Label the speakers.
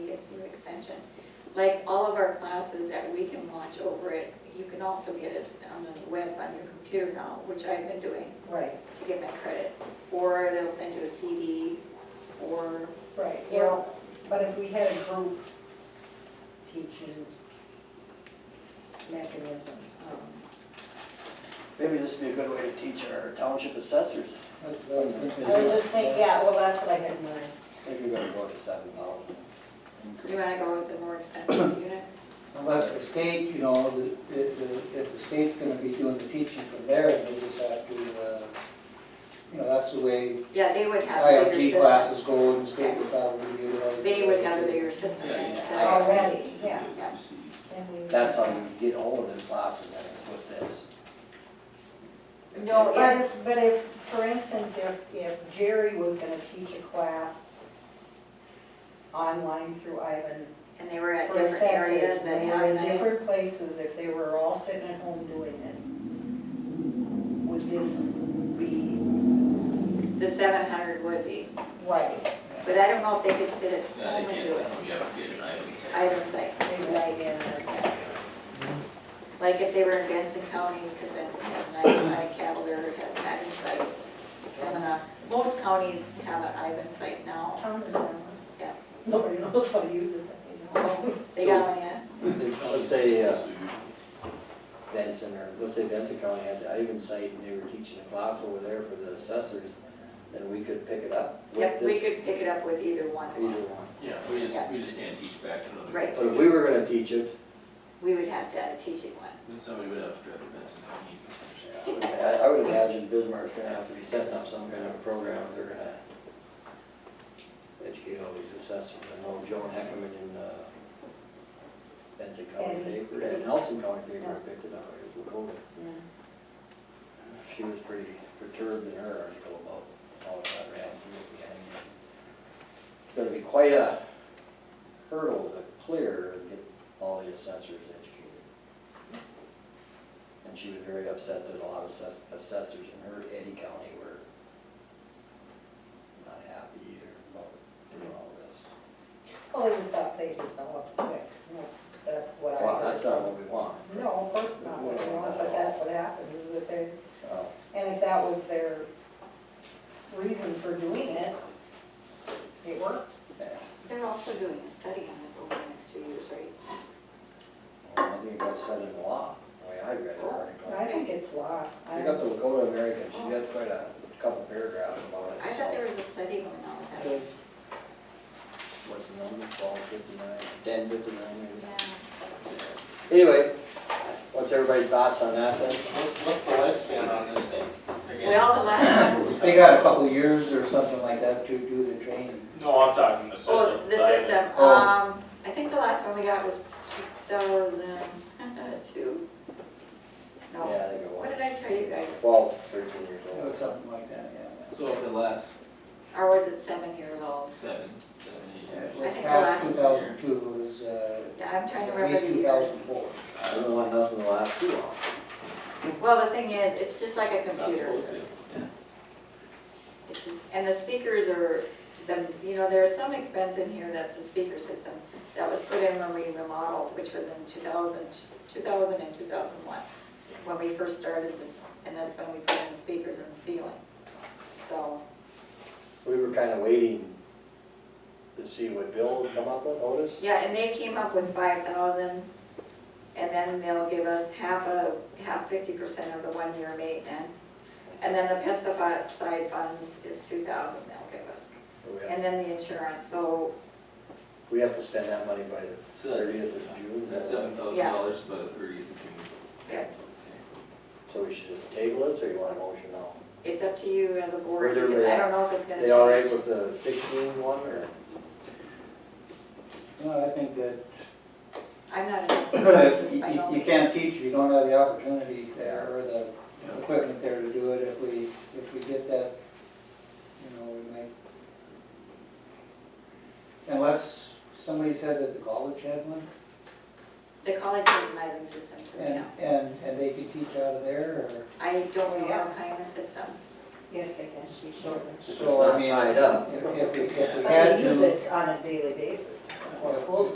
Speaker 1: like all of our classes that we can watch over it, you can also get us on the web on your computer now, which I've been doing
Speaker 2: Right,
Speaker 1: to get my credits. Or they'll send you a CD, or,
Speaker 2: right.
Speaker 1: you
Speaker 2: Well,
Speaker 1: know,
Speaker 2: but if we had a group teaching mechanism, um,
Speaker 3: Maybe this would be a good way to teach our township assessors.
Speaker 4: That's what I was thinking.
Speaker 2: I was just thinking, yeah, well, that's what I had in mind.
Speaker 3: I think we're gonna go to seven thousand.
Speaker 1: you wanna go with the more expensive unit?
Speaker 4: Unless the state, you know, the- the- the- if the state's gonna be doing the teaching from there, they just have to, uh, you know, that's the way
Speaker 1: Yeah, they would have a bigger
Speaker 4: IFG
Speaker 1: system.
Speaker 4: classes go, and the state would probably utilize.
Speaker 1: They would have a bigger system than
Speaker 3: Yeah, yeah.
Speaker 1: ours.
Speaker 2: Already, yeah.
Speaker 1: Yeah.
Speaker 2: and we-
Speaker 3: That's how you get all of the classes, that is with this.
Speaker 1: No,
Speaker 2: But
Speaker 1: yeah,
Speaker 2: if, but if, for instance, if, if Jerry was gonna teach a class online through Ivan
Speaker 1: and they were at
Speaker 2: for
Speaker 1: different areas
Speaker 2: assessors,
Speaker 1: and
Speaker 2: they were in
Speaker 1: having,
Speaker 2: different places, if they were all sitting at home doing it, would this be
Speaker 1: the seven hundred would be.
Speaker 2: right?
Speaker 1: But I don't know if they could sit at
Speaker 5: Yeah,
Speaker 1: home
Speaker 5: they
Speaker 1: and do
Speaker 5: can't,
Speaker 1: it.
Speaker 5: we have to get an item. set.
Speaker 1: I would say,
Speaker 2: Maybe I didn't.
Speaker 1: like if they were in Benson County, because Benson has an Ivan site, Cavalier has an Ivan site. And, uh, most counties have an Ivan site now.
Speaker 2: Tom and Tom.
Speaker 1: Yeah.
Speaker 2: Nobody knows how to use it, but they know.
Speaker 1: They got one yet?
Speaker 3: Let's say uh, Benson, or let's say Benson County had the Ivan site, and they were teaching a class over there for the assessors, then we could pick it up with
Speaker 1: Yep, we
Speaker 3: this, either
Speaker 1: could pick it up with either one of them.
Speaker 3: one.
Speaker 5: Yeah, we just, we just can't teach back to another.
Speaker 1: Right.
Speaker 3: But if we were gonna teach it,
Speaker 1: We would have to teach it one.
Speaker 5: Then somebody would have to drive a Benson County.
Speaker 3: I would- I would imagine Bismarck's gonna have to be setting up some kind of a program, they're gonna educate all these assessors, I know Joan Heckman in, uh, Benson County
Speaker 2: And-
Speaker 3: paper, and Nelson County paper picked it up, it was over. She was pretty perturbed in her article about how it got ran through at the end. It's Gonna be quite a hurdle to clear and get all the assessors educated. And she was very upset that a lot of assess- assessors in her Eddie County were not happy either about doing all this.
Speaker 2: Well, they just thought they just don't look quick, and that's, that's what I heard.
Speaker 3: Well, that's not what we want.
Speaker 2: No, of course not, what they want, but that's what happens, is that they,
Speaker 3: Uh,
Speaker 2: and if that was their reason for doing it, it worked.
Speaker 3: yeah.
Speaker 1: They're also doing a study on it over the next two years, right?
Speaker 3: Well, I think it got said in law, the way I read the article.
Speaker 2: I think it's law.
Speaker 3: You got the Lakota American, she's got quite a couple paragraphs about it.
Speaker 1: I thought there was a study going on with that.
Speaker 3: What's the number, twelve fifty-nine, ten fifty-nine maybe?
Speaker 1: Yeah.
Speaker 3: Anyway, what's everybody's thoughts on that then?
Speaker 6: What's, what's the lifespan on this thing?
Speaker 1: Well, the last one,
Speaker 4: They got a couple years or something like that to do the training.
Speaker 6: No, I'm talking the system.
Speaker 1: oh, the
Speaker 6: but I-
Speaker 1: system,
Speaker 4: Oh.
Speaker 1: um, I think the last one we got was two thousand two. No,
Speaker 3: Yeah, they go,
Speaker 1: what
Speaker 3: on.
Speaker 1: did I tell you guys?
Speaker 3: twelve, thirteen years
Speaker 4: It
Speaker 3: old.
Speaker 4: was something like that, yeah.
Speaker 5: So over the last
Speaker 1: Or was it seven years old?
Speaker 5: seven, seven, eight
Speaker 4: Yeah,
Speaker 5: years.
Speaker 4: It was
Speaker 1: think the
Speaker 4: past
Speaker 1: last-
Speaker 4: two thousand two, it was, uh,
Speaker 1: Yeah, I'm trying to
Speaker 4: at
Speaker 1: remember
Speaker 4: least
Speaker 1: the
Speaker 4: two
Speaker 1: year.
Speaker 4: thousand four.
Speaker 3: I don't want nothing to last too long.
Speaker 1: Well, the thing is, it's just like a
Speaker 5: Not
Speaker 1: computer.
Speaker 5: supposed to.
Speaker 1: It's just, and the speakers are, the, you know, there's some expense in here, that's the speaker system that was put in when we remodeled, which was in 2000, 2000 and 2001, when we first started this, and that's when we put in the speakers in the ceiling. So,
Speaker 3: We were kinda waiting to see what Bill would come up with, Otis.
Speaker 1: yeah, and they came up with 5,000, and then they'll give us half a, half 50% of the one-year maintenance. And then the pesticide funds is 2,000 they'll give us,
Speaker 3: We have-
Speaker 1: and then the insurance, so
Speaker 3: We have to spend that money by the
Speaker 5: So that-
Speaker 3: thirtieth of June.
Speaker 5: that seven thousand dollars is by the thirtieth of June.
Speaker 1: Yeah.
Speaker 3: So we should just table this, or you want a motion now?
Speaker 1: It's up to you as a board,
Speaker 3: Where they're
Speaker 1: because I
Speaker 3: at.
Speaker 1: don't know if it's gonna
Speaker 3: They all right
Speaker 1: change.
Speaker 3: with the sixteen one, or?
Speaker 4: No, I think that
Speaker 1: I'm not an expert on this
Speaker 4: You
Speaker 1: by no
Speaker 4: you- you
Speaker 1: means.
Speaker 4: can't teach if you don't have the opportunity there or the equipment there to do it. If we, if we get that, you know, we might. Unless somebody said that the college had one
Speaker 1: The college has an Ivan system to
Speaker 4: and,
Speaker 1: account.
Speaker 4: and, and they could teach out of there or.
Speaker 1: I don't know how kind of system.
Speaker 2: Yes, they can, she sure.
Speaker 3: It's
Speaker 4: So I
Speaker 3: not
Speaker 4: mean,
Speaker 3: tied up.
Speaker 4: If, if we, if we
Speaker 2: But
Speaker 4: had
Speaker 2: they
Speaker 4: to.
Speaker 2: use it on a daily basis. Well, schools